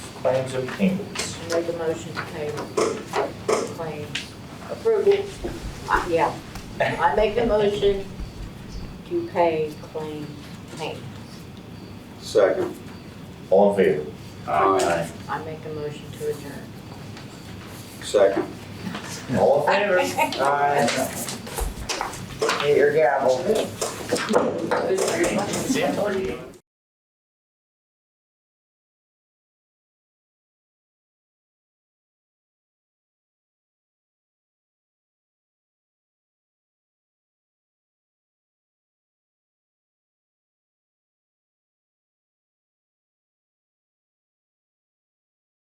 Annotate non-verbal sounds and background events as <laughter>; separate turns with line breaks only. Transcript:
claims and payments.
Make a motion to pay claims. Approval. Uh, Yeah, I make a motion to pay claim payments.
Second.
All in favor?
Aye.
I make a motion to adjourn.
Second.
All in
<laughs>
favor?
Aye. Get your gavel.
See you.